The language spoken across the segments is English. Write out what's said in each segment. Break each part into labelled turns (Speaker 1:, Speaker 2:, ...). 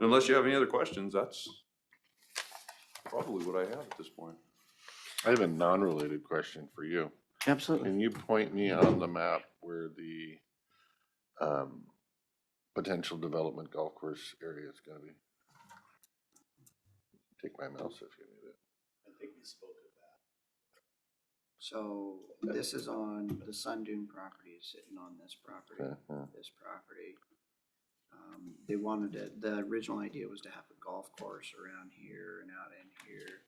Speaker 1: Unless you have any other questions, that's probably what I have at this point.
Speaker 2: I have a non-related question for you.
Speaker 3: Absolutely.
Speaker 2: Can you point me on the map where the um, potential development golf course area is gonna be? Take my mouse if you need it.
Speaker 3: So this is on, the Sun Dune property is sitting on this property,
Speaker 2: Okay, yeah.
Speaker 3: this property. Um, They wanted to, the original idea was to have a golf course around here and out in here.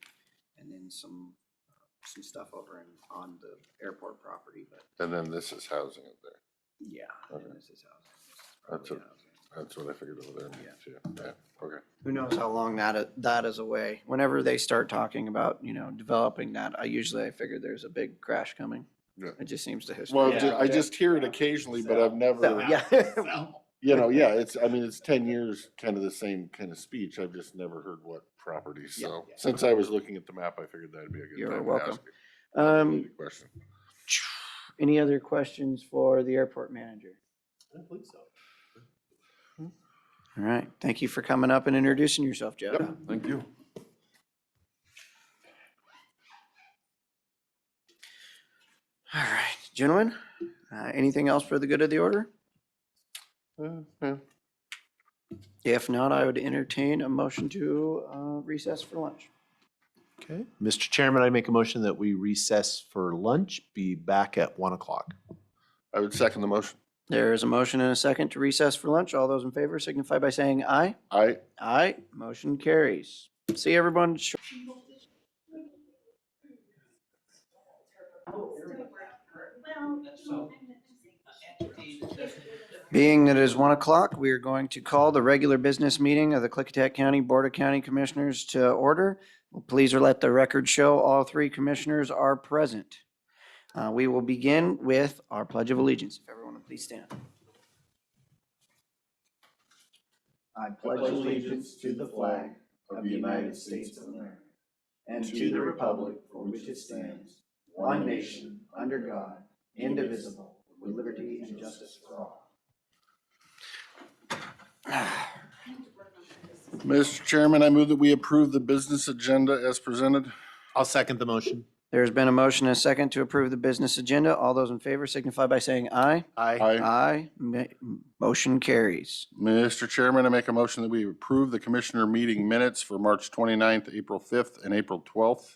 Speaker 3: And then some, uh, some stuff over in, on the airport property, but
Speaker 2: And then this is housing up there.
Speaker 3: yeah,
Speaker 2: Okay.
Speaker 3: and this is housing. this is
Speaker 2: That's
Speaker 3: probably
Speaker 2: a-
Speaker 3: housing.
Speaker 2: That's what I figured over there.
Speaker 3: Yeah.
Speaker 2: too. Yeah, okay.
Speaker 3: Who knows how long that, that is away. Whenever they start talking about, you know, developing that, I usually, I figure there's a big crash coming.
Speaker 2: Yeah.
Speaker 3: It just seems to
Speaker 2: Well,
Speaker 3: history.
Speaker 4: Yeah.
Speaker 2: ju- I just hear it occasionally, but I've
Speaker 3: So,
Speaker 2: never,
Speaker 3: yeah.
Speaker 2: you know, yeah, it's, I mean, it's ten years, kind of the same kind of speech. I've just never heard what property,
Speaker 3: Yeah.
Speaker 2: so. Since I was looking at the map, I figured that'd be a good
Speaker 3: You're
Speaker 2: time to
Speaker 3: welcome.
Speaker 2: ask a
Speaker 3: Um,
Speaker 2: question.
Speaker 3: any other questions for the airport manager?
Speaker 4: I don't believe so.
Speaker 3: All right, thank you for coming up and introducing yourself, Jeff.
Speaker 1: Thank you.
Speaker 3: All right, gentlemen, uh, anything else for the good of the order?
Speaker 2: Uh, yeah.
Speaker 3: If not, I would entertain a motion to uh, recess for lunch.
Speaker 4: Okay. Mr. Chairman, I make a motion that we recess for lunch, be back at one o'clock.
Speaker 2: I would second the motion.
Speaker 3: There is a motion and a second to recess for lunch. All those in favor signify by saying aye.
Speaker 2: I,
Speaker 3: Aye, motion carries. See everyone. sh- Being that it is one o'clock, we are going to call the regular business meeting of the Clickitat County Board of County Commissioners to order. Please let the record show all three commissioners are present. Uh, We will begin with our pledge of allegiance. If everyone would please stand. I pledge
Speaker 5: allegiance to the flag of the United States of America and to the republic for which it stands, one nation, under God, indivisible, with liberty and justice for all.
Speaker 2: Mr. Chairman, I move that we approve the business agenda as presented.
Speaker 4: I'll second the motion.
Speaker 3: There's been a motion and a second to approve the business agenda. All those in favor signify by saying aye.
Speaker 4: Aye.
Speaker 2: Aye.
Speaker 3: Aye. Ma- Motion carries.
Speaker 2: Mr. Chairman, I make a motion that we approve the commissioner meeting minutes for March 29th, April 5th, and April 12th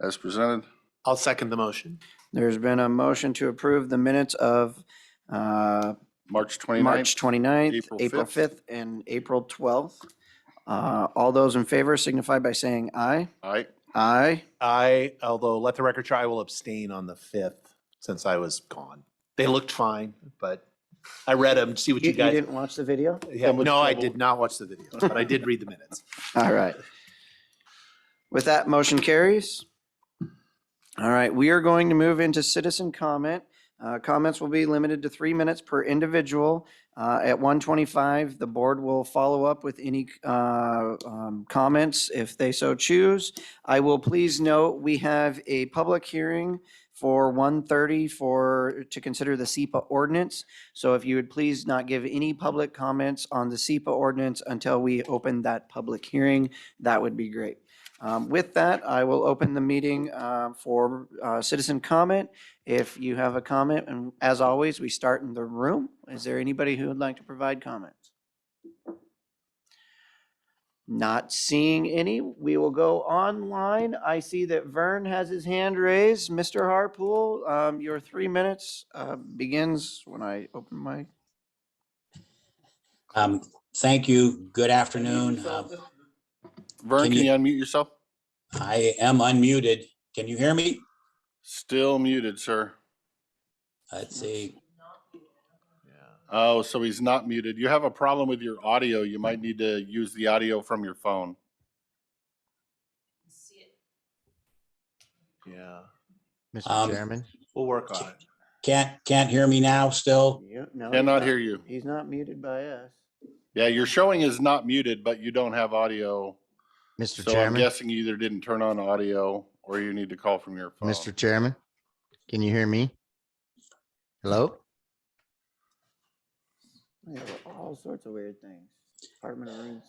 Speaker 2: as presented.
Speaker 4: I'll second the motion.
Speaker 3: There's been a motion to approve the minutes of uh,
Speaker 2: March 29th.
Speaker 3: March 29th,
Speaker 2: April
Speaker 3: April
Speaker 2: 5th.
Speaker 3: 5th, and April 12th. Uh, All those in favor signify by saying aye.
Speaker 2: Aye.
Speaker 3: Aye.
Speaker 4: I, although let the record show, I will abstain on the fifth since I was gone. They looked fine, but I read them, see what
Speaker 3: You
Speaker 4: you
Speaker 3: you
Speaker 4: guys.
Speaker 3: didn't watch the video?
Speaker 4: Yeah,
Speaker 2: much
Speaker 4: No, I
Speaker 2: trouble.
Speaker 4: did not watch the video, but I did read the minutes.
Speaker 3: All right. With that, motion carries. All right, we are going to move into citizen comment. Uh, Comments will be limited to three minutes per individual. Uh, At 1:25, the board will follow up with any uh, um, comments if they so choose. I will please note, we have a public hearing for 1:30 for, to consider the SEPA ordinance. So if you would please not give any public comments on the SEPA ordinance until we open that public hearing, that would be great. Um, With that, I will open the meeting uh, for uh, citizen comment. If you have a comment, and as always, we start in the room. Is there anybody who would like to provide comments? Not seeing any. We will go online. I see that Vern has his hand raised. Mr. Harpool, um, your three minutes uh, begins when I open my.
Speaker 6: Um, thank you. Good afternoon. Uh,
Speaker 2: Vern,
Speaker 6: Can
Speaker 2: can
Speaker 6: you-
Speaker 2: you unmute yourself?
Speaker 6: Uh, I am unmuted. Can you hear me?
Speaker 2: Still muted, sir.
Speaker 6: Let's see.
Speaker 2: Oh, so he's not muted. You have a problem with your audio. You might need to use the audio from your phone.
Speaker 4: Yeah,
Speaker 6: Um,
Speaker 7: Mr. Chairman,
Speaker 4: we'll work on it.
Speaker 6: Can't, can't hear me now still?
Speaker 3: Yeah, Oh, no, he's
Speaker 2: Cannot hear you.
Speaker 3: He's not muted by us.
Speaker 2: Yeah, your showing is not muted, but you don't have audio.
Speaker 7: Mr.
Speaker 2: So I'm
Speaker 7: Chairman,
Speaker 2: guessing you either didn't turn on audio or you need to call from your phone.
Speaker 7: Mr. Chairman, can you hear me? Hello?
Speaker 3: They have all sorts of weird things. Apartment rooms.